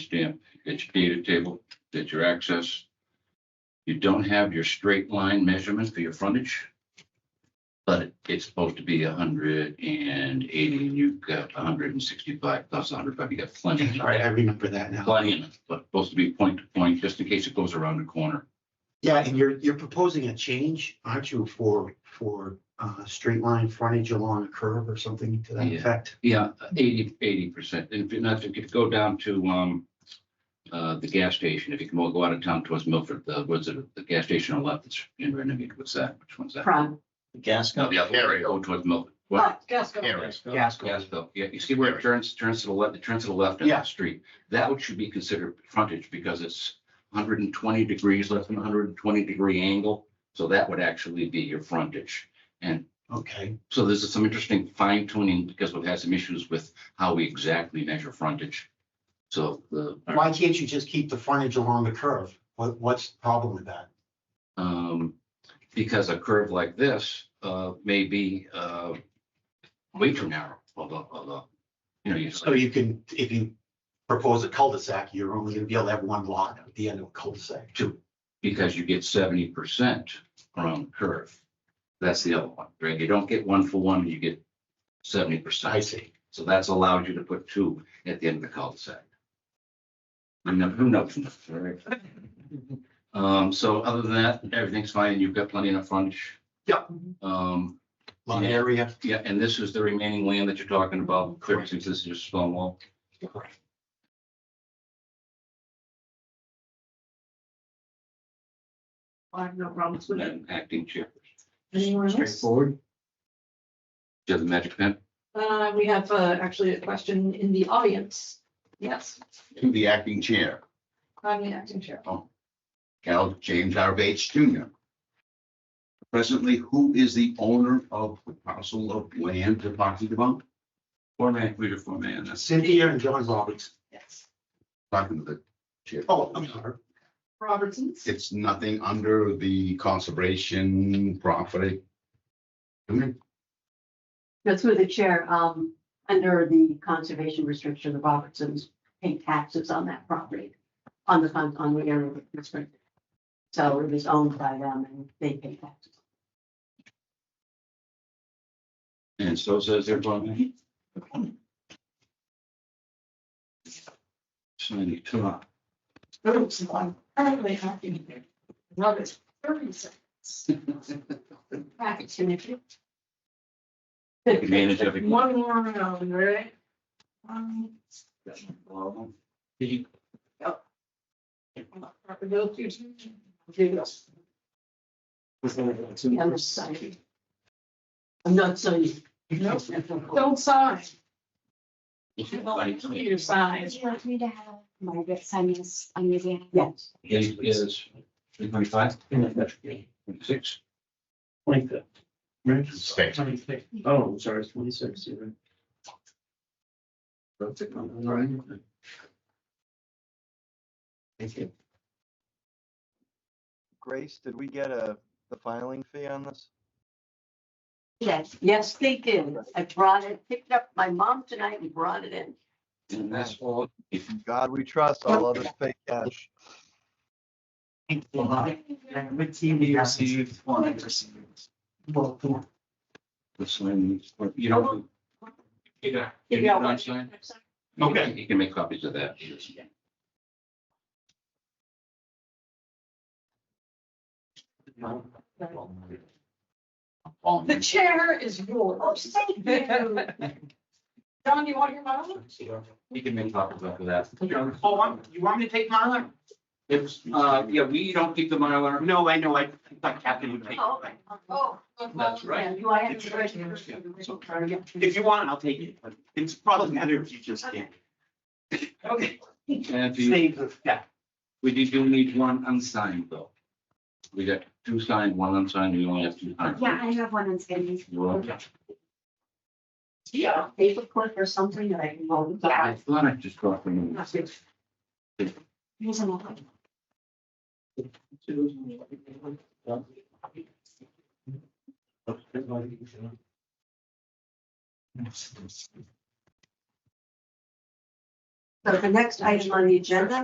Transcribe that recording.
stamp, it's data table, that's your access. You don't have your straight line measurement for your frontage. But it- it's supposed to be hundred and eighty, and you've got hundred and sixty-five plus hundred, but you got plenty. of- Right, I remember that now. Plenty, enough, but supposed to be point to point, just in case it goes around the corner. Yeah, and you're, you're proposing a change, aren't you, for, for, uh, straight line frontage along a curve or something to that Yeah. effect? Yeah, eighty, eighty percent, and if you're not, if you go down to, um, uh, the gas station, if you can go out of town towards Milford, the, what's it, the gas station on the left that's in Renegade, what's that, which one's that? Prime. No, the other way, oh, towards Milford. What? Oh, Gasco. Gasco. Gasville, yeah, you see where it turns, turns to the left, it turns to the left in Yeah. that street. That would should be considered frontage because it's hundred and twenty degrees, less than hundred and twenty degree angle. So that would actually be your frontage. Okay, So this is some interesting fine tuning because we've had some issues with how we exactly measure frontage. So the, why can't you just keep the frontage along the curve? What, what's the problem with that? um, because a curve like this, uh, may be, uh, way too narrow, although, although, you know, you. So you can, if you propose a cul-de-sac, you're only gonna be able to have one lot at the end of a cul-de-sac. two, because you get seventy percent around the curve. That's the other one, right? You don't get one for one, you get seventy I percent. see. So that's allowed you to put two at the end of the cul-de-sac. I know, who knows? right? Um, so other than that, everything's fine. You've got plenty enough frontage. Yep. Um, Lot Yeah. area. yeah, and this is the remaining land that you're talking about, since this is just stone wall. I have no problems with it. And acting chair, Anyone else? Straightforward. do you have the magic pen? Uh, we have, uh, actually a question in the audience. Yes, to the acting chair, I'm the acting chair. Cal James R. Bates Jr. Presently, who is the owner of the parcel of land to talking about? Four man, reader, four man, that's Cynthia and John Roberts. Yes. Talking to the chair. Oh, I'm sorry. Robertson's. It's nothing under the conservation property. I mean, No, through the chair, um, under the conservation restriction, the Robertsons pay taxes on that property, on the, con- on the area restricted. So it was owned by them and they pay taxes. And so says everybody. It's ninety-two. Oops, I'm currently acting there. Now it's thirty seconds. Back to you. You manage everything. One more round, right? Um, proper go to- do this. The other side. I'm not so used. Nope. Don't sign. Your size. Do you want me to have Margaret sign this on your behalf? Oh, Yes, Yes, it is. Three twenty-five? Six? Twenty-fifth. Right? Six. Twenty-fifth. Oh, sorry, it's twenty-six, yeah. Thank you. Grace, did we get a, the filing fee on this? yes, yes, they did. I brought it, picked up my mom tonight and brought it in. And that's all. If you God, we trust all others pay cash. And what team do you receive? One I received. Well, four. sign, you don't. You got don't one. sign? Okay. You can make copies of that. The chair is yours. John, do you want your mom? You can make copies of that. Oh, I'm- you want me to take mine? It's, uh, yeah, we don't keep the Mylar. No, I know, I I thought Captain would take Oh, it. oh, That's right. yeah, you, I have. It's- If If you want, it, I'll take it, but it's probably better if you just did. Okay. And if you- Save the, yeah, We did, you need one unsigned though. We got two signed, one unsigned, we only have two. signed. Yeah, I have one on schedule. You're welcome. yeah, Paper clip or something that I can hold. I thought I just got them. Here's another. So the next item on the agenda